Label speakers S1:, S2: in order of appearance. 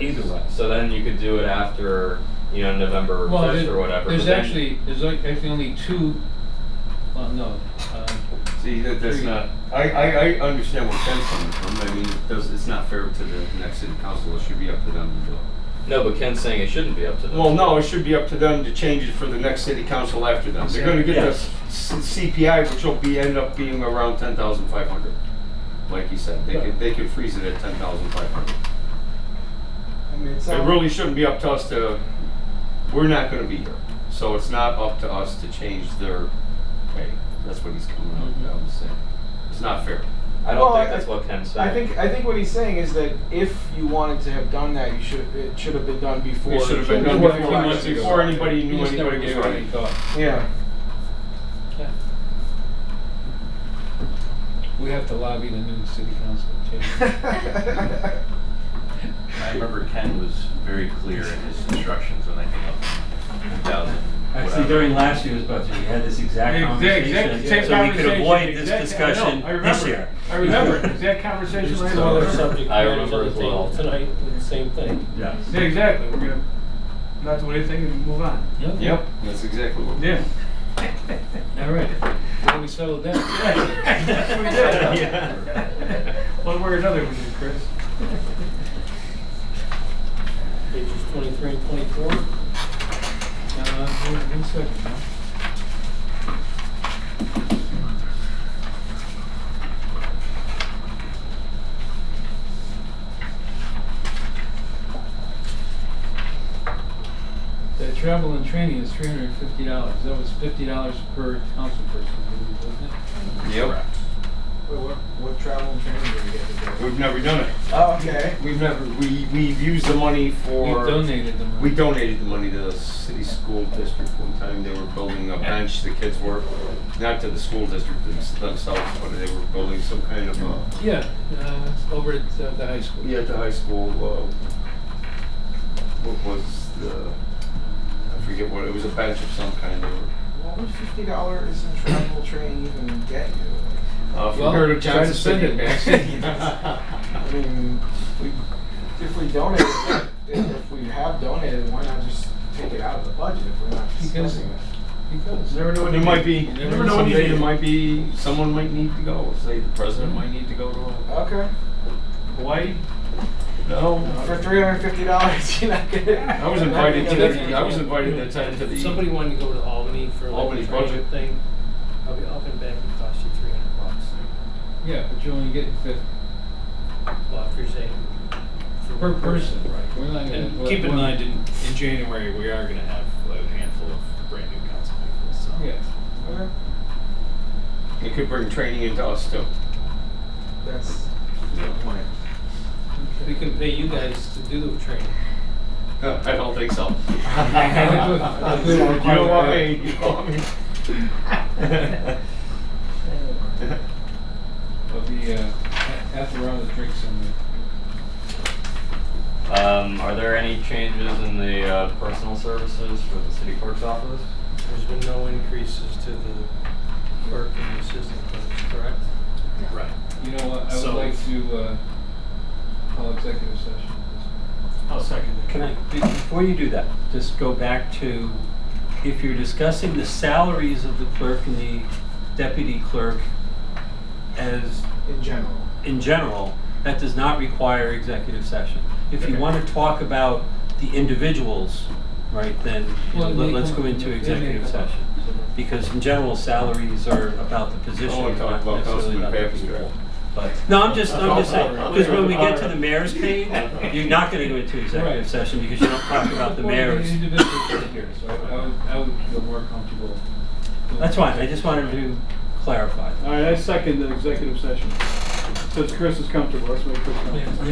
S1: Either way.
S2: So then you could do it after, you know, November
S3: Well,
S2: first
S3: there-
S2: or whatever.
S3: There's
S2: but then-
S3: actually, there's like- actually only two, well, no, um,
S4: See, that, that's
S3: Three.
S4: not, I, I, I understand where Ken's coming from, I mean, it does, it's not fair to the next city council, it should be up to them to do it.
S2: No, but Ken's saying it shouldn't be up to them.
S4: Well, no, it should be up to them to change it for the next city council after them. They're gonna get the
S1: Yes.
S4: C- CPI, which will be, end up being around ten thousand five hundred. Like you said, they could, they could freeze it at ten thousand five hundred.
S5: I mean, it
S4: It
S5: sounds.
S4: really shouldn't be up to us to, we're not gonna be here, so it's not up to us to change their pay. That's what he's coming out, I was saying. It's not fair.
S2: I don't
S5: Well,
S2: think
S5: I-
S2: that's what Ken's saying.
S5: I think I think what he's saying is that if you wanted to have done that, you should it should have been done before.
S4: It should have been done
S3: Before-
S4: before,
S3: a few months
S4: before
S3: ago.
S4: anybody
S3: you
S4: knew
S3: just never
S4: anybody
S3: gave
S4: was
S3: it any
S4: running.
S3: thought.
S5: Yeah.
S3: We have to lobby the new city council to take it.
S6: I remember Ken was very clear in his instructions when I came up in 2000.
S1: Actually,
S6: whatever.
S1: during last year's budget, we had this exact
S7: Exact- exact
S1: conversation,
S7: same
S1: so we could
S7: conversation,
S1: avoid
S7: exact-
S1: this
S7: I know,
S1: discussion
S7: I
S1: this
S7: remember.
S1: year.
S7: I remember, it. Is that conversation right
S2: two other
S7: now.
S2: subject I matters on remember the as table well.
S8: tonight with the same thing.
S1: Yes.
S7: Yeah, exactly, we're gonna not do anything and move on.
S4: Yep, that's exactly what.
S7: Yeah.
S3: All right, then we settled that.
S7: That's what we did. One way or another, we did, Chris.
S8: Pages twenty-three and twenty-four.
S3: Uh, one- one second now. The travel and training is three hundred and fifty dollars. That was fifty dollars per council person, I believe, wasn't it?
S4: Yep.
S5: Wait, what, what travel and training did we get to do?
S4: We've never done it.
S5: Oh, okay.
S4: We've never, we, we've used the money
S3: We
S4: for.
S3: donated the money.
S4: We donated the money to the city school district one time. They were building a bench, the kids were, not to the school district thems- themselves, but they were building some kind of a.
S3: Yeah, uh, over at uh, the high school.
S4: Yeah, at the high school, uh, what was the, I forget what, it was a bench of some kind. They were,
S5: What would fifty dollars in travel training even get you?
S4: uh,
S3: Well,
S4: from here to
S3: try
S4: Johnson
S3: to spend
S4: City.
S3: it,
S5: I mean, we, if we donate, if we have donated, why not just take it out of the budget if we're not
S3: Because-
S5: spending it?
S3: Because.
S4: Never know. There might be.
S3: You never
S4: Never
S3: know
S4: know.
S3: what you
S4: Someday
S3: need.
S4: there might be someone might need to go. Say the president might need to go to. A,
S5: Okay.
S7: Hawaii,
S4: no.
S5: For three hundred and fifty dollars, you're not gonna.
S4: I was invited to. The, I was invited that time to the.
S8: If somebody wanted to go to Albany for like
S4: Albany
S8: a training
S4: budget.
S8: thing, I'll be up and back, it cost you three hundred bucks.
S3: Yeah, but you only get fifty
S8: Well, if you're saying. for
S3: per
S8: one
S3: person, right? We're not gonna.
S9: And
S3: let
S9: keep in
S3: one-
S9: mind, in, in January, we are gonna have a handful of brand new council people, so.
S3: Yeah.
S5: Okay.
S4: It could bring training into us too.
S5: That's the point.
S8: We can pay you guys to do the training.
S4: I don't think so.
S3: I
S4: you
S3: do- I do-
S4: don't want me. You don't want me.
S3: Of the, uh, a- after we're out of the drink somewhere.
S2: Um, are there any changes in the uh, personal services for the city clerk's office?
S8: There's been no increases to the clerk and the assistant clerks, correct?
S9: Right.
S3: You know what, I would
S9: So-
S3: like to, uh, call executive session.
S9: I'll second that.
S1: Can I, be- before you do that, just go back to, if you're discussing the salaries of the clerk and the deputy clerk as
S5: In general.
S1: in general, that does not require executive session. If you
S3: Okay.
S1: want to talk about the individuals, right, then you know,
S3: Well,
S1: let-
S3: they
S1: let's
S3: come-
S1: go into
S3: they may
S1: executive
S3: come up.
S1: session. Because in general, salaries are about the
S4: I
S1: position,
S4: want to
S1: not
S4: talk about
S1: necessarily
S4: Councilman
S1: about the
S4: Pappy's
S1: people. But, no, I'm just, I'm just saying, because when we get to the mayor's page, you're not going to go into
S3: Right.
S1: executive session because you don't talk about the
S3: Well,
S1: mayor's.
S3: individual figures, so I I would, I would feel more comfortable. doing-
S1: That's fine, I just wanted to clarify.
S7: all right, I second the executive session. Since Chris is comfortable, let's make Chris comfortable.
S3: Yeah.